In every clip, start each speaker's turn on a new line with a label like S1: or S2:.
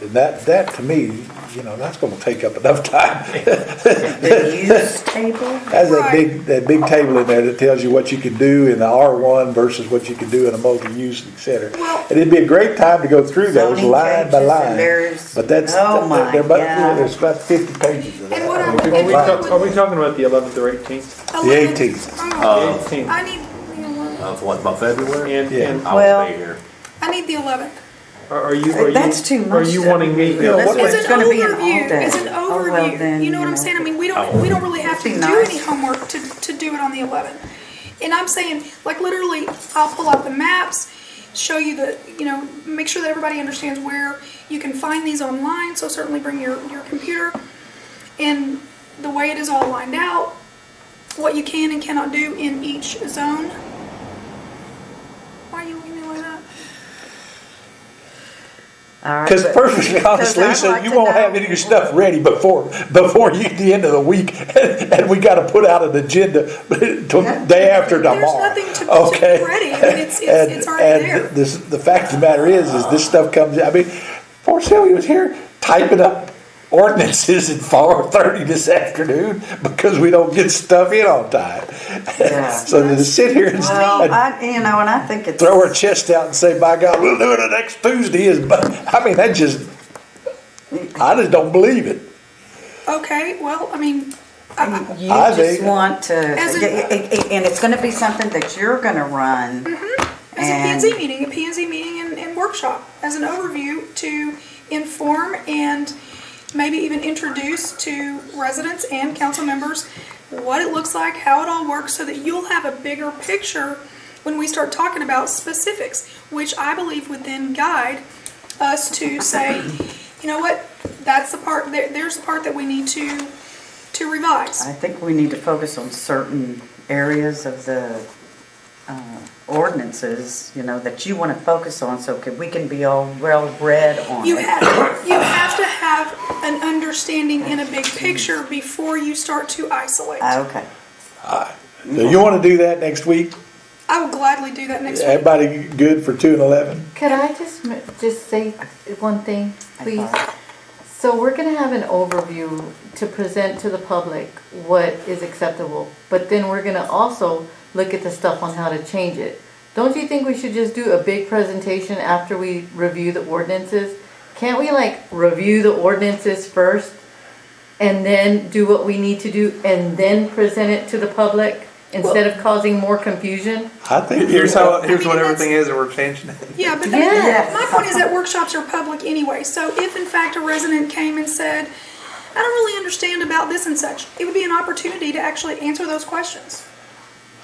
S1: And that, that to me, you know, that's gonna take up enough time.
S2: The use table?
S1: That's that big, that big table in there that tells you what you can do in the R one versus what you can do in a multi-use, et cetera.
S2: Well-
S1: And it'd be a great time to go through those
S2: Zoning
S1: line
S2: changes
S1: by
S2: and
S1: line.
S2: there's-
S1: But that's,
S2: oh my
S1: there- but,
S2: God.
S1: there's about fifty pages of that.
S3: And what I'm-
S1: or 50
S3: and
S4: Are we,
S3: what-
S1: lines.
S4: talk- are we talking about the 11th or 18th?
S3: The
S1: 18th.
S3: Oh,
S4: The 18th.
S3: I need, you know what?
S5: Of what, about February?
S4: And,
S1: Yeah.
S4: and
S5: I
S2: Well-
S5: won't be here.
S3: I need the eleventh.
S4: are are you, are you?
S2: That's too
S4: Are
S2: much
S4: you
S2: to-
S4: wanting me?
S2: Yeah,
S4: yeah,
S2: that's
S4: what-
S2: what-
S3: It's
S2: It's
S3: an
S2: gonna be an all
S3: overview,
S2: day.
S3: it's an
S2: Oh, well,
S3: overview,
S2: then,
S3: you know what
S2: you
S3: I'm
S2: know.
S3: saying? I mean, we don't, we don't really have to
S2: Be
S3: do any
S2: nice.
S3: homework to, to do it on the eleventh. And I'm saying, like, literally, I'll pull out the maps, show you the, you know, make sure that everybody understands where you can find these online, so certainly bring your, your computer. And the way it is all lined out, what you can and cannot do in each zone. Why are you looking at me like that?
S2: All right,
S1: Cause
S2: but-
S1: perfectly honest,
S2: I'd
S1: Lisa,
S2: like
S1: you
S2: to
S1: won't
S2: know-
S1: have any of your stuff ready before, before you, the end of the week. And we gotta put out an agenda to, day after tomorrow.
S3: There's nothing to- to
S1: Okay?
S3: be ready. I mean, it's- it's-
S1: And-
S3: it's already
S1: and
S3: there.
S1: This, the fact of the matter is, is this stuff comes, I mean, poor Sylvia was here typing up ordinances at four thirty this afternoon because we don't get stuff in on time.
S2: Yeah.
S1: So to sit here and-
S2: Well,
S1: and
S2: I, you know, and I think it's.
S1: throw our chest out and say, by God, we'll do it next Tuesday is, but, I mean, that just, I just don't believe it.
S3: Okay, well, I mean, I- I-
S2: You
S1: I
S2: just
S1: think-
S2: want to,
S3: As in-
S2: and it's gonna be something that you're gonna run.
S6: Mm-hmm.
S3: as a
S2: And-
S3: PNC meeting, a PNC meeting and, and workshop, as an overview to inform and maybe even introduce to residents and council members what it looks like, how it all works, so that you'll have a bigger picture when we start talking about specifics, which I believe would then guide us to say, you know what, that's the part, there, there's the part that we need to, to revise.
S2: I think we need to focus on certain areas of the uh, ordinances, you know, that you wanna focus on, so can- we can be all well-read on
S3: You
S2: it.
S3: have, you have to have an understanding in a big picture before you start to isolate. I
S2: Ah, Okay,
S1: So you wanna do that next week?
S3: will gladly do that next week.
S1: Everybody good for two and eleven?
S6: Could I just, m- just say one thing, please? So we're gonna have an overview to present to the public what is acceptable, but then we're gonna also look at the stuff on how to change it. Don't you think we should just do a big presentation after we review the ordinances? Can't we like review the ordinances first and then do what we need to do and then present it to the public instead of causing more confusion?
S1: I think.
S4: Here's how, here's what
S3: I mean,
S4: everything is and we're changing it.
S3: Yeah, but
S6: Yes.
S3: that- my point is that workshops are public anyway, so if in fact a resident came and said, I don't really understand about this and such, it would be an opportunity to actually answer those questions.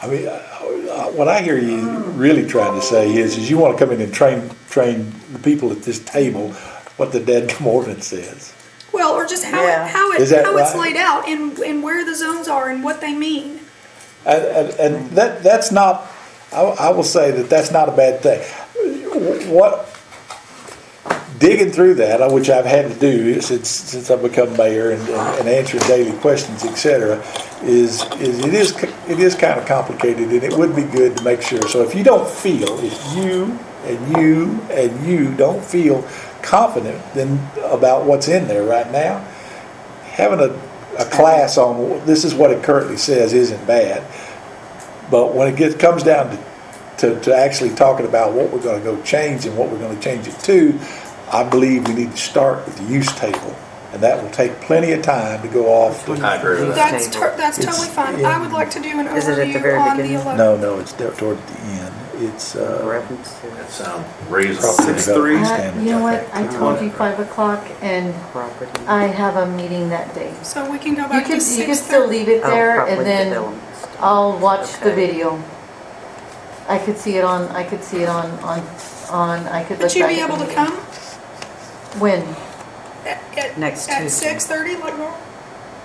S1: I mean, uh, uh, what I hear you really trying to say is, is you wanna come in and train, train the people at this table what the dead ordinance is.
S3: Well, or just how,
S2: Yeah.
S3: it- how
S1: Is
S3: it,
S1: that
S3: how it's
S1: right?
S3: laid out and, and where the zones are and what they mean.
S1: And, and, and that, that's not, I, I will say that that's not a bad thing. What, digging through that, uh, which I've had to do since, since I've become mayor and, and and answering daily questions, et cetera, is, is it is, c- it is kind of complicated and it would be good to make sure. So if you don't feel, if you and you and you don't feel confident then about what's in there right now, having a, a class on, this is what it currently says isn't bad. But when it gets, comes down to, to, to actually talking about what we're gonna go change and what we're gonna change it to, I believe we need to start with the use table. And that will take plenty of time to go off. the-
S5: I agree with that.
S3: That's, to- that's totally fine. I would like to do an
S2: Is it at the
S3: overview
S2: very
S3: on the
S2: beginning?
S3: 11th.
S1: No, no, it's there toward the end. It's, uh.
S2: reference to
S5: That sounds
S1: property
S5: reasonable.
S4: Six,
S1: development
S4: three.
S6: Uh,
S1: standards,
S6: You know
S1: I
S6: what,
S1: think.
S6: I told you five o'clock and
S2: property.
S6: I have a meeting that day.
S3: So we can go
S6: You
S3: back
S6: could,
S3: to
S6: you could
S3: six
S6: still
S3: thirty.
S6: leave it
S2: Oh,
S6: there
S2: property
S6: and then
S2: development stuff.
S6: I'll watch the
S2: Okay.
S6: video. I could see it on, I could see it on, on, on, I could look
S3: Would you
S6: back
S3: be
S6: at
S3: able
S6: the
S3: to
S6: meeting.
S3: come
S6: When?
S3: at, at,
S2: Next
S3: at
S2: Tuesday.
S3: six thirty, like normal?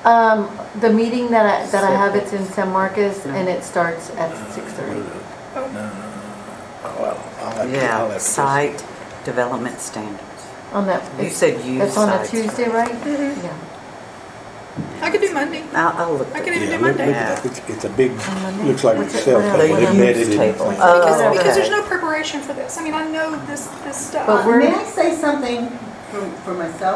S6: Um, the meeting that I, that I have, it's in San Marcos and it starts at six thirty.
S3: Oh,
S1: Well, I'll have to- I'll have
S2: Yeah,
S1: to-
S2: site development standards.
S6: On that.
S2: You said you
S6: It's on a
S2: sides.
S6: Tuesday, right?
S3: Mm-hmm.
S6: Yeah.
S3: I could do Monday.
S2: I'll, I'll look.
S3: I
S2: at
S3: can
S2: it.
S3: even
S1: Yeah,
S3: do
S1: look- look
S3: Monday.
S1: at that. It's it's a big,
S6: Monday?
S1: looks like
S6: Um, What's it-
S1: it's self.
S2: what are the
S1: embedded
S2: use
S1: in
S2: table?
S1: things.
S2: Oh,
S3: Because, because
S2: okay.
S3: there's no preparation for this. I mean, I know this, this stuff.
S6: But we're-
S7: May I say something for, for myself,